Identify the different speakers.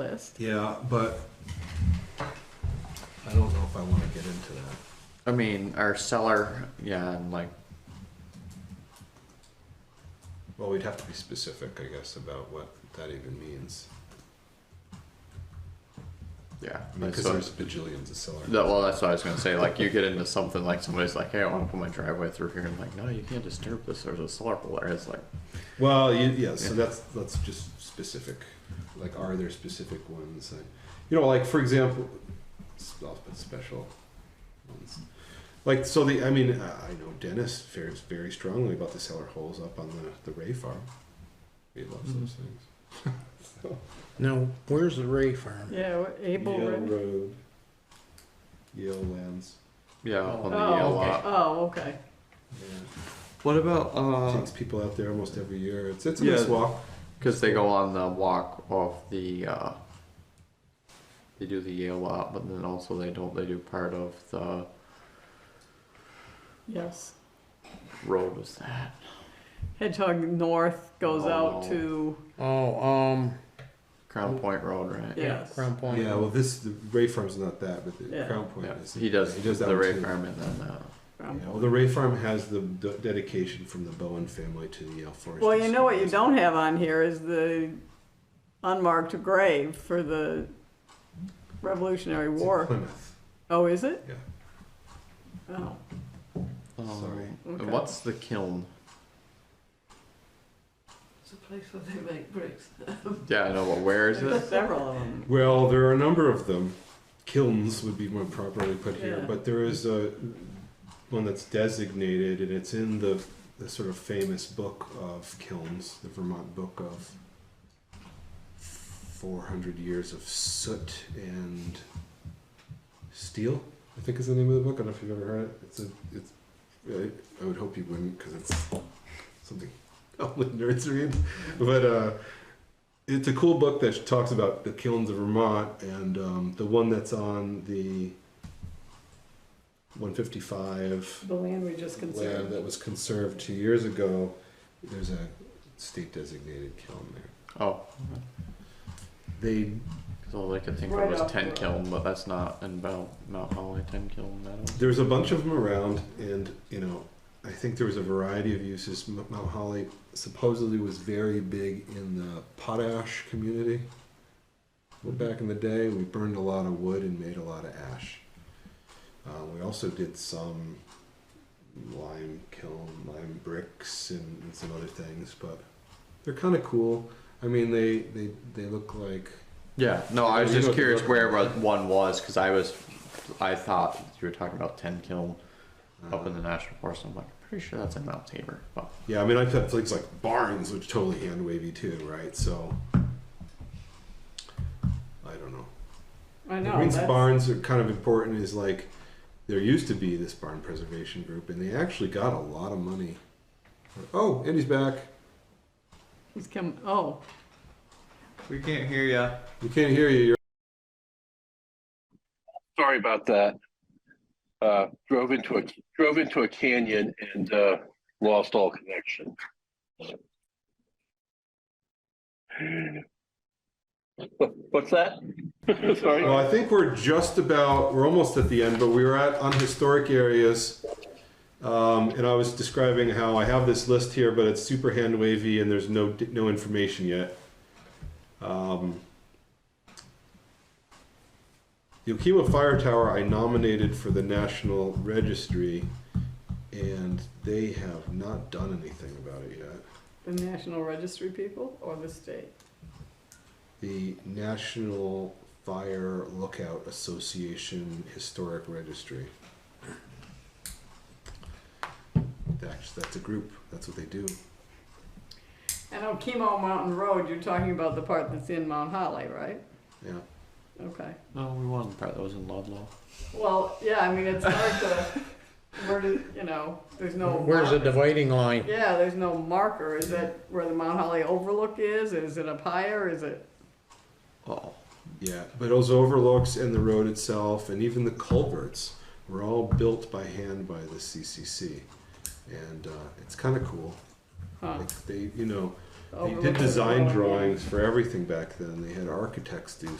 Speaker 1: list.
Speaker 2: Yeah, but I don't know if I wanna get into that.
Speaker 3: I mean, our seller, yeah, and like,
Speaker 2: Well, we'd have to be specific, I guess, about what that even means.
Speaker 3: yeah.
Speaker 2: I mean,
Speaker 3: that's
Speaker 2: cause
Speaker 3: what-
Speaker 2: there's bajillions of sellers.
Speaker 3: that- well, that's what I was gonna say. Like, you get into something like somebody's like, "Hey, I want to put my driveway through here," and like, "No, you can't disturb this." There's a solar pole there. It's like,
Speaker 2: Well, you, yeah, so
Speaker 3: Yeah.
Speaker 2: that's that's just specific. Like, are there specific ones? that- you know, like for example, s- I'll put special ones. Like so, the I mean, uh, I know Dennis fares very strongly about the cellar holes up on the the Ray farm. He loves those things. so,
Speaker 4: Now, where's the Ray farm?
Speaker 1: Yeah, what- Abel.
Speaker 2: Yale
Speaker 1: Road.
Speaker 2: Road, Yale Lands.
Speaker 3: yeah, on the uh,
Speaker 1: Oh,
Speaker 3: yellow
Speaker 1: okay.
Speaker 3: lot.
Speaker 1: Oh, okay.
Speaker 2: Yeah.
Speaker 3: What about uh?
Speaker 2: Takes people out there almost every year. It's it's a
Speaker 3: Yeah.
Speaker 2: nice walk.
Speaker 3: Because they go on the walk off the. Uh, they do the Yale lot, but then also they don't. They do part of the
Speaker 1: Yes.
Speaker 3: road. Was that?
Speaker 1: Hedgehog North goes out
Speaker 3: Oh.
Speaker 1: to
Speaker 4: Oh, um,
Speaker 3: Crown Point Road, right?
Speaker 4: yeah,
Speaker 1: Yes.
Speaker 4: Crown Point.
Speaker 2: Yeah, well, this the Ray farm's not that, but the
Speaker 1: Yeah.
Speaker 2: Crown Point
Speaker 3: Yeah,
Speaker 2: is.
Speaker 3: he does.
Speaker 2: He does that
Speaker 3: the
Speaker 2: one
Speaker 3: Ray
Speaker 2: too.
Speaker 3: Farm and then uh,
Speaker 1: um,
Speaker 2: Yeah, well, the Ray Farm has the d- dedication from the Bowen family to the Yale Forest.
Speaker 1: Well, you know what you don't have on here is the unmarked grave for the Revolutionary
Speaker 2: It's in
Speaker 1: War.
Speaker 2: Plymouth.
Speaker 1: Oh, is it?
Speaker 2: Yeah.
Speaker 1: Oh,
Speaker 2: Sorry.
Speaker 3: um,
Speaker 1: Okay.
Speaker 3: What's the kiln?
Speaker 5: It's a place where they make bricks.
Speaker 3: Yeah, I know, but where is
Speaker 1: there's
Speaker 3: it?
Speaker 1: several of them.
Speaker 2: Well, there are a number of them. Kilns would be more properly put here,
Speaker 1: Yeah.
Speaker 2: but there is a one that's designated, and it's in the the sort of famous book of kilns, the Vermont Book of 400 Years of Soot and Steel. I think is the name of the book. I don't know if you've ever heard it. It's a it's. I, I would hope you wouldn't, because it's something only nerds read. But uh, it's a cool book that talks about the kilns of Vermont, and um, the one that's on the 155
Speaker 1: The land we just
Speaker 2: land
Speaker 1: conserved.
Speaker 2: that was conserved two years ago. There's a state designated kiln there.
Speaker 3: Oh,
Speaker 2: They
Speaker 3: because all I could think
Speaker 1: Right
Speaker 3: of
Speaker 1: up
Speaker 3: was Ten
Speaker 1: there.
Speaker 3: Kiln, but that's not in Mount, Mount Holly, Ten Kiln, that one.
Speaker 2: there's a bunch of them around, and you know, I think there was a variety of uses. M- Mount Holly supposedly was very big in the potash community. Well, back in the day, we burned a lot of wood and made a lot of ash. Uh, we also did some lime kiln, lime bricks, and, and some other things, but they're kind of cool. I mean, they, they, they look like
Speaker 3: Yeah, no, I was
Speaker 2: You know
Speaker 3: just
Speaker 2: what the
Speaker 3: curious
Speaker 2: book-
Speaker 3: where wa- one was, because I was, I thought you were talking about Ten Kiln up in the National Forest, and I'm like, pretty sure that's in Mount Tabor, but,
Speaker 2: Yeah, I mean, I've had things like Barnes, which totally hand wavy too, right? So I don't know.
Speaker 1: I
Speaker 2: The
Speaker 1: know.
Speaker 2: Green's
Speaker 1: that's-
Speaker 2: barns are kind of important. Is like there used to be this barn preservation group, and they actually got a lot of money. Oh, Andy's back.
Speaker 1: He's come, oh,
Speaker 6: We can't hear ya.
Speaker 2: We can't hear you. You're
Speaker 7: sorry about that. Uh, drove into a drove into a canyon and uh, lost all connection. What- What's that? sorry.
Speaker 2: Well, I think we're just about, we're almost at the end, but we were at on historic areas. Um, and I was describing how I have this list here, but it's super hand wavy and there's no, no information yet. Um, the Okima Fire Tower, I nominated for the National Registry and they have not done anything about it yet.
Speaker 1: the National Registry people or the state?
Speaker 2: The National Fire Lookout Association Historic Registry. That's, that's a group, that's what they do.
Speaker 1: I know Chemo Mountain Road, you're talking about the part that's in Mount Holly, right?
Speaker 2: Yeah.
Speaker 1: Okay.
Speaker 3: no, we won the part that was in Ludlow.
Speaker 1: Well, yeah, I mean, it's hard to, where do, you know, there's no.
Speaker 4: Where's the
Speaker 1: marker.
Speaker 4: dividing line?
Speaker 1: Yeah, there's no marker. Is that where the Mount Holly Overlook is? Is it up higher? Is it?
Speaker 3: Oh,
Speaker 2: Yeah, but those overlooks and the road itself and even the culverts were all built by hand by the CCC. And uh, it's kind of cool.
Speaker 1: Huh.
Speaker 2: Like they, you know, they
Speaker 1: Overlook
Speaker 2: did
Speaker 1: is
Speaker 2: design
Speaker 1: wrong.
Speaker 2: drawings for everything back then. They had architects do